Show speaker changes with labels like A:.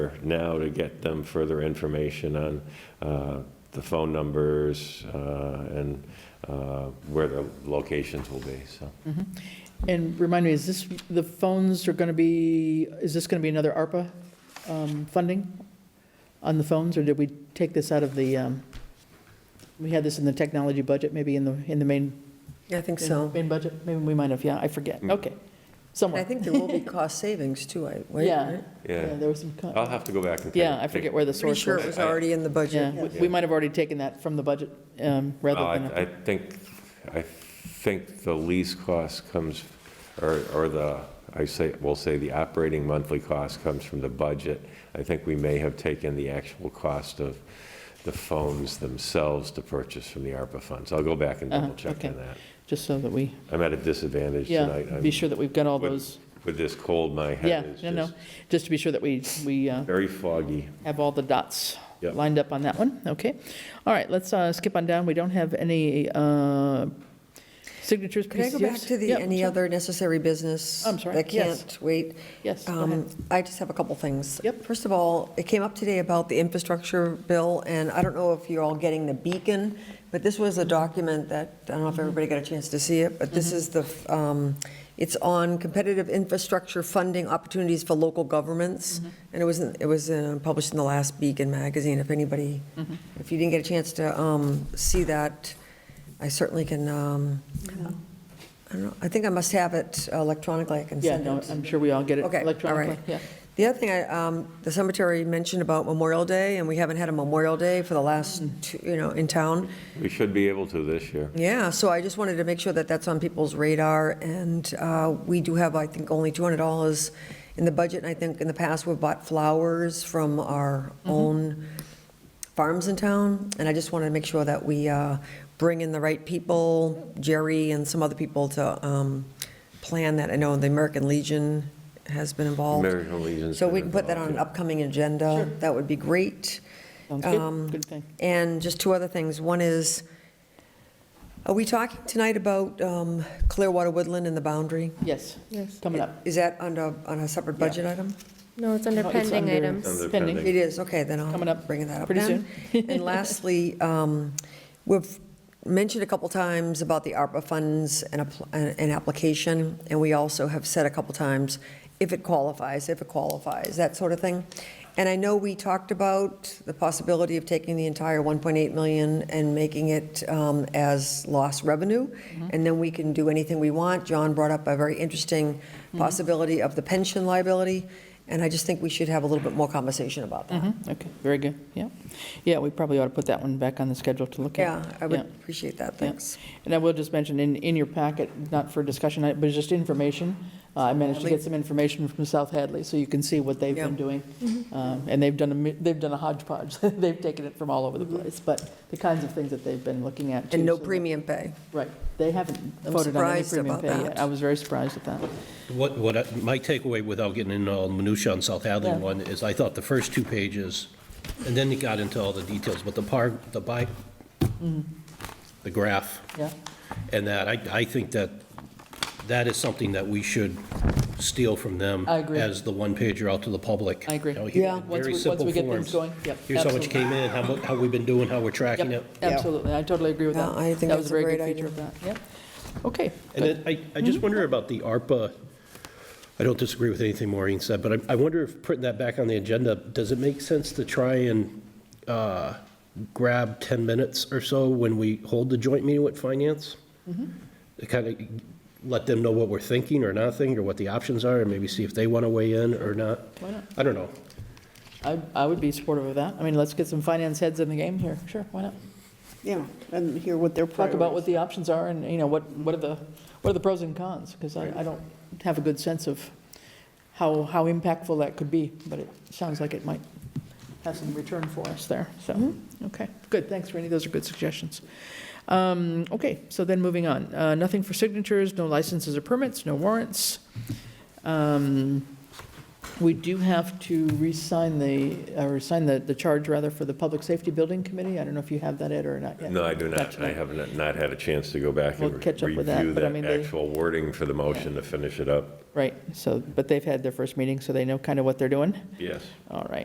A: now to get them further information on uh, the phone numbers uh, and uh, where the locations will be, so.
B: Mm-hmm. And remind me, is this, the phones are going to be, is this going to be another ARPA um, funding on the phones, or did we take this out of the, um, we had this in the technology budget, maybe in the, in the main,
C: Yeah, I think so.
B: main budget? Maybe we might have, yeah, I
A: Hmm.
B: forget, okay,
C: And I
B: somewhere.
C: think there will be cost savings too, I, wait,
B: Yeah.
C: right?
B: Yeah,
A: Yeah,
B: there was some, co-
A: I'll have to go back and.
B: yeah, I
A: take-
B: forget where the
C: Pretty
B: source
C: sure it
B: was.
C: was already in the
B: Yeah,
C: budget.
B: we- we might have already taken that from the budget, um, rather
A: Oh, I-
B: than,
A: I think, I think the lease cost comes, or, or the, I say, we'll say the operating monthly cost comes from the budget. I think we may have taken the actual cost of the phones themselves to purchase from the ARPA funds. I'll go back and
B: Uh-huh,
A: double check on
B: okay.
A: that.
B: just so that we,
A: I'm at a disadvantage tonight.
B: yeah,
A: I'm-
B: be sure that we've got all
A: Would-
B: those,
A: With this cold, my
B: yeah,
A: head is
B: no, no,
A: just
B: just to be sure that we, we uh,
A: very foggy.
B: have all the dots
A: Yep.
B: lined up on that one, okay? All right, let's uh, skip on down, we don't have any uh, signatures,
C: Could I go back
B: PCFs?
C: to the,
B: Yep,
C: any
B: sure.
C: other necessary business?
B: I'm sorry,
C: That
B: yes.
C: can't wait?
B: Yes, go
C: Um,
B: ahead.
C: I just have a couple things.
B: Yep.
C: First of all, it came up today about the infrastructure bill, and I don't know if you're all getting the beacon, but this was a document that, I don't know if
B: Mm-hmm.
C: everybody got a chance to see it, but this is the, um, it's on competitive infrastructure funding opportunities for local governments.
B: Mm-hmm.
C: And it was, in- it was uh, published in the last Beacon magazine, if anybody,
B: Mm-hmm.
C: if you didn't get a chance to um, see that, I certainly can, um, I don't know, I think I must have it electronically, I can
B: Yeah,
C: send it.
B: no, I'm sure we all get it
C: Okay, all
B: electronically,
C: right.
B: yeah.
C: The other thing, I, um, the cemetery mentioned about Memorial Day, and we haven't had a Memorial Day for the last,
B: Mm.
C: two- you know, in town.
A: We should be able to this year.
C: Yeah, so I just wanted to make sure that that's on people's radar, and uh, we do have, I think, only $200 in the budget, and I think in the past, we've bought flowers from our
A: Mm-hmm.
C: own farms in town, and I just wanted to make sure that we uh, bring in the right people, Jerry and some other people to um, plan that. I know the American Legion has been involved.
A: American Legion's
C: So
A: been
C: we can put that on
A: involved,
C: an
A: yeah.
C: upcoming agenda. That would be great.
B: Sounds
C: Um,
B: good, good thing.
C: And just two other things. One is, are we talking tonight about um, Clearwater Woodland and the boundary?
B: Yes,
D: Yes.
B: coming up.
C: Is that under, on a separate budget item?
D: No, it's under
B: No, it's
D: pending
B: under-
D: items.
A: Under
B: Pending.
A: pending.
C: It is, okay, then
B: Coming
C: I'll
B: up
C: bring that up
B: pretty
C: then. And lastly, um, we've mentioned a couple times about the ARPA funds and, appl- and and application, and we also have said a couple times, if it qualifies, if it qualifies, that sort of thing. And I know we talked about the possibility of taking the entire 1.8 million and making it um, as lost revenue,
B: Mm-hmm.
C: and then we can do anything we want. John brought up a very interesting
B: Mm-hmm.
C: possibility of the pension liability, and I just think we should have a little bit more conversation about that.
B: Mhm, Okay, very good, yeah. Yeah, we probably ought to put that one back on the schedule to look at.
C: Yeah, I would appreciate that, thanks.
B: And I will just mention, in, in your packet, not for discussion, but it's just information, uh, I managed to get some information from South Hadley, so you can see what they've been
C: Yeah.
B: doing.
C: Mm-hmm.
B: Um, And they've done, a mi- they've done a hodgepodge, they've taken it from all over the place, but the kinds of things that they've been looking at.
C: Mm-hmm. And
B: too,
C: no
B: so that-
C: premium pay.
B: Right, they haven't
C: I'm
B: voted on any
C: surprised
B: premium
C: about
B: pay yet.
C: that.
B: I was very surprised at that.
E: What, what, I- my takeaway, without getting into all the minutia on South Hadley
B: Yeah.
E: one, is I thought the first two pages, and then it got into all the details, but the par, the by,
B: Mm-hmm.
E: the graph,
B: Yeah,
E: and that, I, I think that, that is something that we should steal from them.
B: I agree.
E: As the one pager out to the public.
B: I agree.
E: You know, here-
C: Yeah.
B: Once we-
E: Very
B: once
E: simple
B: we get things
E: forms.
B: going, yep,
E: Here's how much
B: absolutely.
E: came in, how, mu- how we've been doing, how we're tracking it.
B: yep, absolutely, I totally agree with
C: Yeah,
B: that.
C: I think
B: That
C: that's
B: was
C: a
B: very good
C: great
B: feature of that, yep. Okay,
E: And then I, I just wonder about the ARPA, I don't disagree with anything Maureen said, but I, I wonder if putting that back on the agenda, does it make sense to try and uh, grab 10 minutes or so when we hold the joint meeting with finance? To kind of let them know what we're thinking or not thinking, or what the options are, and maybe see if they want to weigh in or not?
B: Why not?
E: I don't know.
B: I, I would be supportive of that. I mean, let's get some finance heads in the game here, sure, why not?
F: Yeah, and hear what their
B: talk
F: priorities.
B: about what the options are and, you know, what, what are the, what are the pros and cons? Because I, I don't have a good sense of how, how impactful that could be, but it sounds like it might have some return for us there, so, okay, good, thanks, Randy, those are good suggestions. Um, okay, so then moving on, uh, nothing for signatures, no licenses or permits, no warrants. Um, We do have to re-sign the, or sign the, the charge rather for the Public Safety Building Committee, I don't know if you have that, Ed, or not yet.
A: No, I do
B: Not
A: not. I
B: tonight.
A: have not not had a chance to go back and
B: We'll catch up
A: review
B: with that, but I mean,
A: that
B: they-
A: actual wording for the motion to finish it up.
B: Right, so, but they've had their first meeting, so they know kind of what they're doing.
A: Yes.
B: All right.